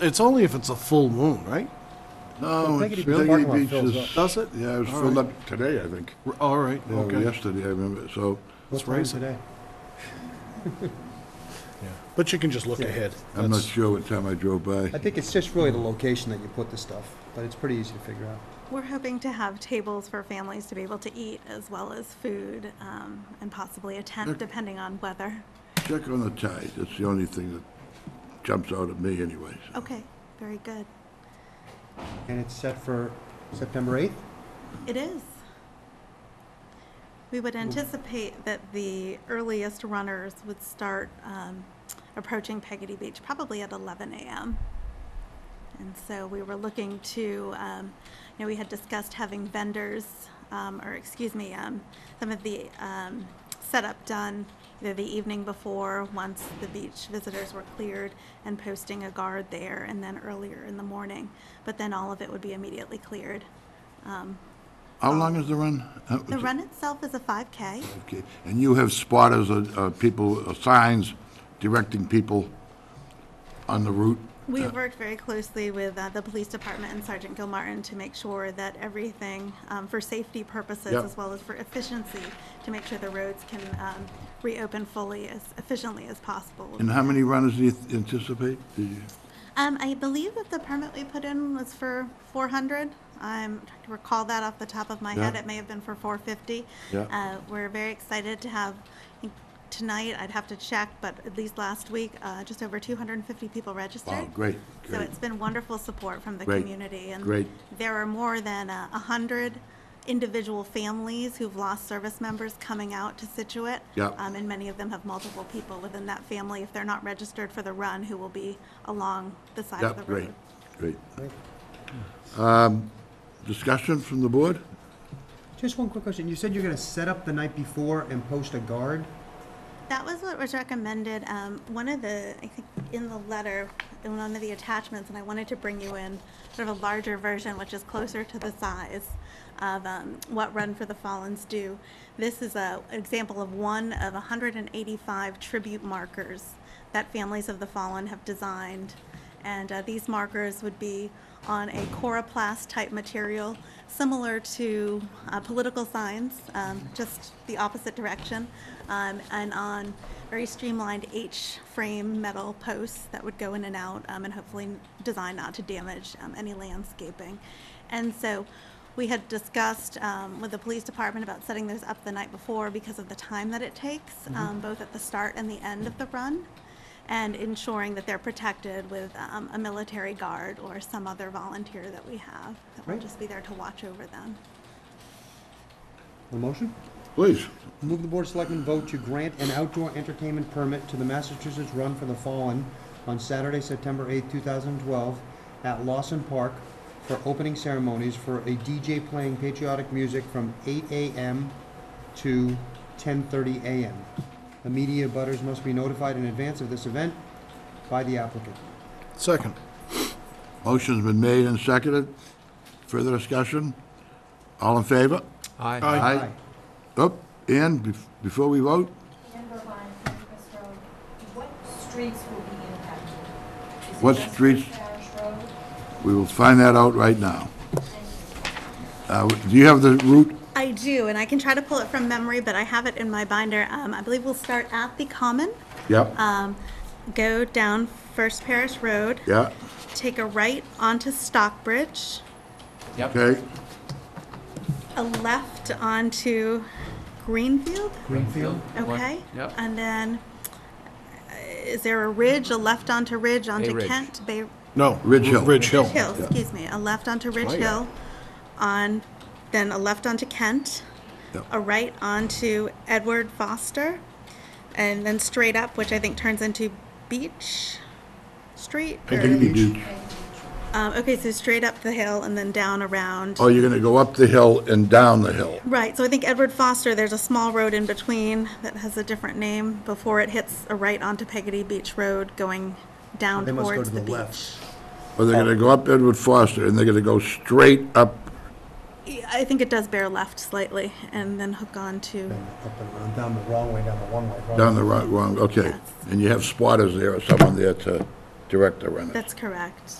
It's only if it's a full moon, right? No, it's Peggotty Beach, the parking Shaggy lot Beach fills is, Does it? yeah, it was filled up today, I think. R- All right, Yeah, or okay. yesterday, I remember, so What time raise it. today? But you can just look Yeah. ahead. I'm not That's- sure what time I drove I by. think it's just really the location that you put the stuff, but it's pretty easy to figure out. We're hoping to have tables for families to be able to eat as well as food um, and possibly a tent, depending on weather. Check on the tide, that's the only thing that jumps out at me anyways. Okay, very good. And it's set for September 8th? It is. We would anticipate that the earliest runners would start um, approaching Peggotty Beach probably at 11 a.m. And so we were looking to, um, you know, we had discussed having vendors, um, or excuse me, um, some of the um, setup done either the evening before, once the beach visitors were cleared, and posting a guard there, and then earlier in the morning. But then all of it would be immediately cleared. Um, How long is the run? How- the run itself is a 5K. Okay, And you have spotters, uh, uh, people, uh, signs directing people on the route? We've worked very closely with uh, the police department and Sergeant Gilmartin to make sure that everything, um, for safety purposes Yep. as well as for efficiency, to make sure the roads can um, reopen fully as efficiently as possible. And how many runners do you th- anticipate? Did you- Um, I believe that the permit we put in was for 400. I'm trying to recall that off the top of my head. Yeah. It may have been for 450. Yeah. Uh, we're very excited to have, I think tonight, I'd have to check, but at least last week, uh, just over 250 people registered. Wow, great, So great. it's been wonderful support from the Great, community. and great. There are more than uh, 100 individual families who've lost service members coming out to Situate. Yeah. Um, And many of them have multiple people within that family, if they're not registered for the run, who will be along the side of the Yep, road. great, great. Um, Discussion from the board? Just one quick question. You said you're going to set up the night before and post a guard? That was what was recommended. Um, one of the, I think, in the letter, in one of the attachments, and I wanted to bring you in sort of a larger version, which is closer to the size of um, what Run for the Fallens do. This is a example of one of 185 tribute markers that families of the fallen have designed. And uh, these markers would be on a coroplast type material, similar to uh, political signs, um, just the opposite direction, um, and on very streamlined H frame metal posts that would go in and out um, and hopefully designed not to damage um, any landscaping. And so we had discussed um, with the police department about setting those up the night before because of the time that it takes, um, both at the start and the end of the run and ensuring that they're protected with um, a military guard or some other volunteer that we have that will Right. just be there to watch over them. A motion? Please. Move the Board of Selectmen vote to grant an outdoor entertainment permit to the Massachusetts Run for the Fallen on Saturday, September 8, 2012, at Lawson Park for opening ceremonies for a DJ playing patriotic music from 8 a.m. to 10:30 a.m. The media butters must be notified in advance of this event by the applicant. Second. Motion's been made and seconded. Further discussion? All in favor? Aye. Oh, and bef- before we vote, Number one, Chris Road, what streets will be impacted? Is it What just streets? Parish Road? we will find that out right now. Uh, Do you have the route? I do, and I can try to pull it from memory, but I have it in my binder. Um, I believe we'll start at the Common, Yep. um, go down First Parish Road, Yeah, take a right onto Stockbridge, okay. a left onto Greenfield. Greenfield? One- Okay. Yep. And then, uh, is there a ridge, a left onto Ridge, onto Ridge. Kent? Bay No. Ridge Hill. Ridge Hill. Hill, excuse me, a left onto Ridge yeah. Hill, on, then a left onto Kent, Yep. a right onto Edward Foster, and then straight up, which I think turns into Beach Street. or- You do- Um, okay, so straight up the hill and then down around. Oh, you're going to go up the hill and down the hill. Right, so I think Edward Foster, there's a small road in between that has a different name before it hits a right onto Peggotty Beach Road going down They must go towards to the the beach. left. Or they're going to go up Edward Foster and they're going to go straight up. Yeah, I think it does bear left slightly and then hook on to, And up and around, down the wrong way, down the one-way road. Down the right, wrong, okay. And you have spotters there or someone there to direct the renters. That's correct.